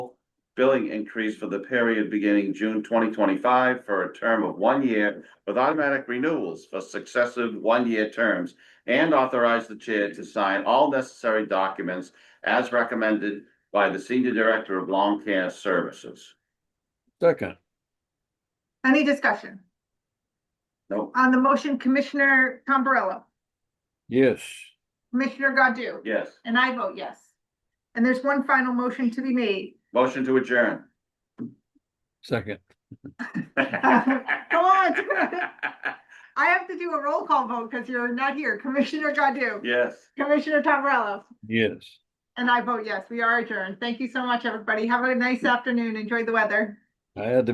billing increase for the period beginning June twenty twenty-five for a term of one year with automatic renewals for successive one-year terms and authorize the chair to sign all necessary documents as recommended by the Senior Director of Long Care Services. Second, Any discussion? Nope, On the motion, Commissioner Tombrello, yes, Commissioner Godu? yes. And I vote yes. And there's one final motion to be made. Motion to adjourn. second, Come on. I have to do a roll call vote because you're not here. Commissioner Godu? Yes. Commissioner Tombrello? yes. And I vote yes, we are adjourned. Thank you so much, everybody. Have a nice afternoon. Enjoy the weather. I had to